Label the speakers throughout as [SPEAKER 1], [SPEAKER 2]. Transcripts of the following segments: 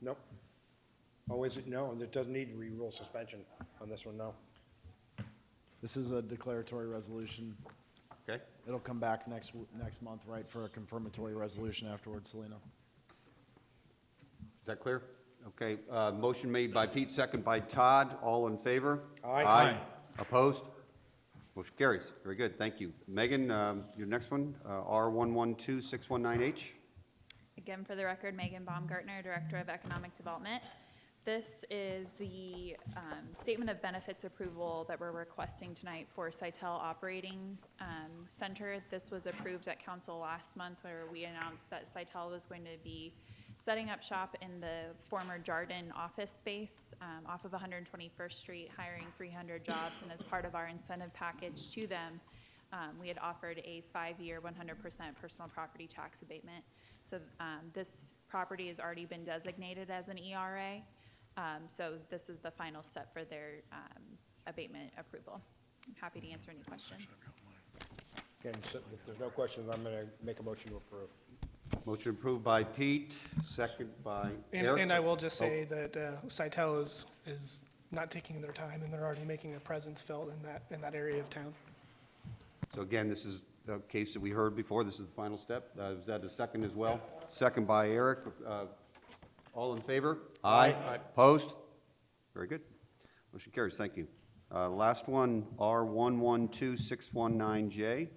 [SPEAKER 1] Nope. Oh, is it? No, and it doesn't need re-rule suspension on this one, no.
[SPEAKER 2] This is a declaratory resolution.
[SPEAKER 3] Okay,
[SPEAKER 2] It'll come back next, w- next month, right, for a confirmatory resolution afterwards, Selena?
[SPEAKER 3] is that clear? Okay, uh, motion made by Pete, second by Todd, all in favor?
[SPEAKER 1] Aye.
[SPEAKER 3] Opposed? Motion carries, very good, thank you. Megan, um, your next one, R112619H?
[SPEAKER 4] Again, for the record, Megan Baumgartner, Director of Economic Development. This is the um, statement of benefits approval that we're requesting tonight for Sitel Operating um, Center. This was approved at council last month where we announced that Sitel was going to be setting up shop in the former Jarden office space um, off of 121st Street, hiring 300 jobs. And as part of our incentive package to them, um, we had offered a five-year, 100% personal property tax abatement. So um, this property has already been designated as an ERA, Um, so this is the final step for their um, abatement approval. I'm happy to answer any questions.
[SPEAKER 1] Again, so if there's no questions, I'm gonna make a motion to approve.
[SPEAKER 3] Motion approved by Pete, second by
[SPEAKER 5] And,
[SPEAKER 3] Eric. oh.
[SPEAKER 5] and I will just say that uh, Sitel is, is not taking their time, and they're already making a presence felt in that, in that area of town.
[SPEAKER 3] So again, this is the case that we heard before, this is the final step. Uh, Is that a second as well? Second by Eric. Uh, All in favor? Aye. Opposed? Very good. Motion carries, thank you. Uh, Last one, R112619J.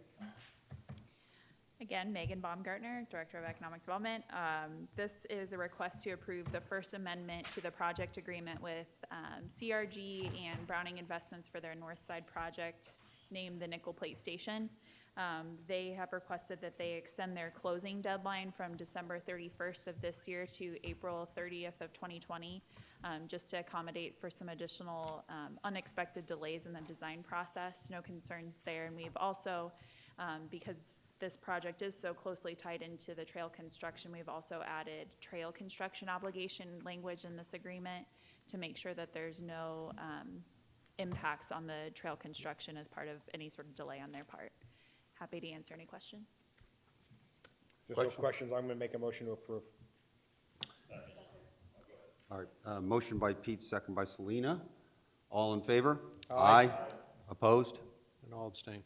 [SPEAKER 4] Again, Megan Baumgartner, Director of Economic Development. Um, This is a request to approve the First Amendment to the project agreement with um, CRG and Browning Investments for their North Side project named the Nickel Plate Station. Um, They have requested that they extend their closing deadline from December 31st of this year to April 30th of 2020, um, just to accommodate for some additional um, unexpected delays in the design process. No concerns there. And we've also, um, because this project is so closely tied into the trail construction, we've also added trail construction obligation language in this agreement to make sure that there's no um, impacts on the trail construction as part of any sort of delay on their part. Happy to answer any questions.
[SPEAKER 1] If there's no
[SPEAKER 3] Question.
[SPEAKER 1] questions, I'm gonna make a motion to approve.
[SPEAKER 3] All right, uh, motion by Pete, second by Selena. All in favor?
[SPEAKER 1] Aye.
[SPEAKER 3] Opposed?
[SPEAKER 6] And I'll abstain.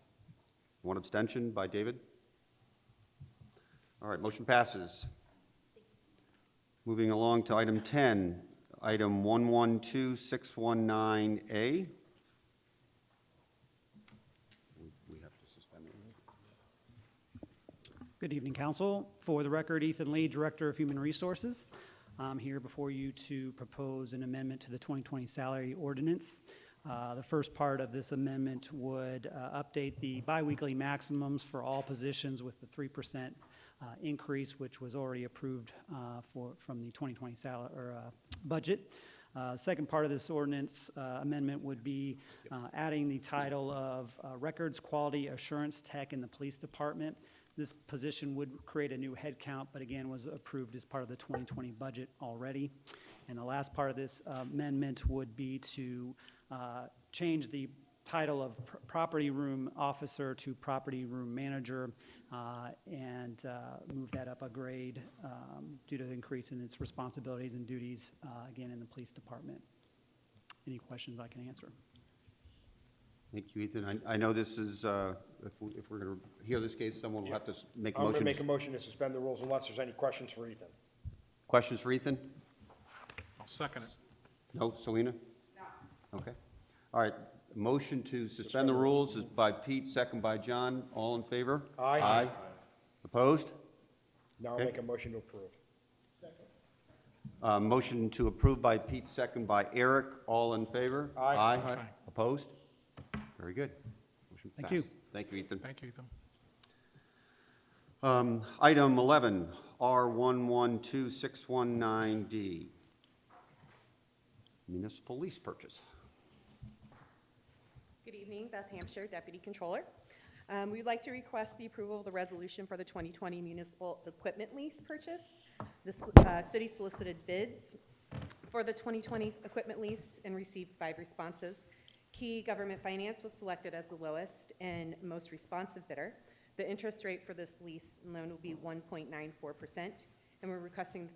[SPEAKER 3] One abstention by David. All right, motion passes. Moving along to item 10, item 112619A. We have to suspend it.
[SPEAKER 7] Good evening, Council. For the record, Ethan Lee, Director of Human Resources. I'm here before you to propose an amendment to the 2020 salary ordinance. Uh, The first part of this amendment would uh, update the biweekly maximums for all positions with the 3% uh, increase, which was already approved uh, for, from the 2020 salary, or uh, budget. Uh, Second part of this ordinance uh, amendment would be uh, adding the title of uh, Records Quality Assurance Tech in the Police Department. This position would create a new headcount, but again, was approved as part of the 2020 budget already. And the last part of this uh, amendment would be to uh, change the title of pr- property room officer to property room manager uh, and uh, move that up a grade um, due to the increase in its responsibilities and duties, uh, again, in the police department. Any questions I can answer?
[SPEAKER 3] Thank you, Ethan. I I know this is, uh, if we- if we're going to hear this case, someone will have to s- make
[SPEAKER 1] I'm gonna make a motion
[SPEAKER 3] motions.
[SPEAKER 1] to suspend the rules unless there's any questions for Ethan.
[SPEAKER 3] Questions for Ethan?
[SPEAKER 6] I'll second it.
[SPEAKER 3] No, Selena? No. Okay. All right, motion to suspend the rules is by Pete, second by John. All in favor?
[SPEAKER 1] Aye.
[SPEAKER 3] Aye. Opposed?
[SPEAKER 1] Now I'll
[SPEAKER 3] Okay.
[SPEAKER 1] make a motion to approve.
[SPEAKER 3] Uh, Motion to approve by Pete, second by Eric. All in favor?
[SPEAKER 1] Aye.
[SPEAKER 6] Aye.
[SPEAKER 3] Opposed? Very good. Motion
[SPEAKER 7] Thank you.
[SPEAKER 3] passed. Thank you, Ethan.
[SPEAKER 6] Thank you, Ethan.
[SPEAKER 3] Um, Item 11, R112619D, municipal lease purchase.
[SPEAKER 8] Good evening, Beth Hampshire, Deputy Controller. Um, We'd like to request the approval of the resolution for the 2020 municipal equipment lease purchase. The s- uh, city solicited bids for the 2020 equipment lease and received five responses. Key Government Finance was selected as the lowest and most responsive bidder. The interest rate for this lease and loan will be 1.94%, and we're requesting that the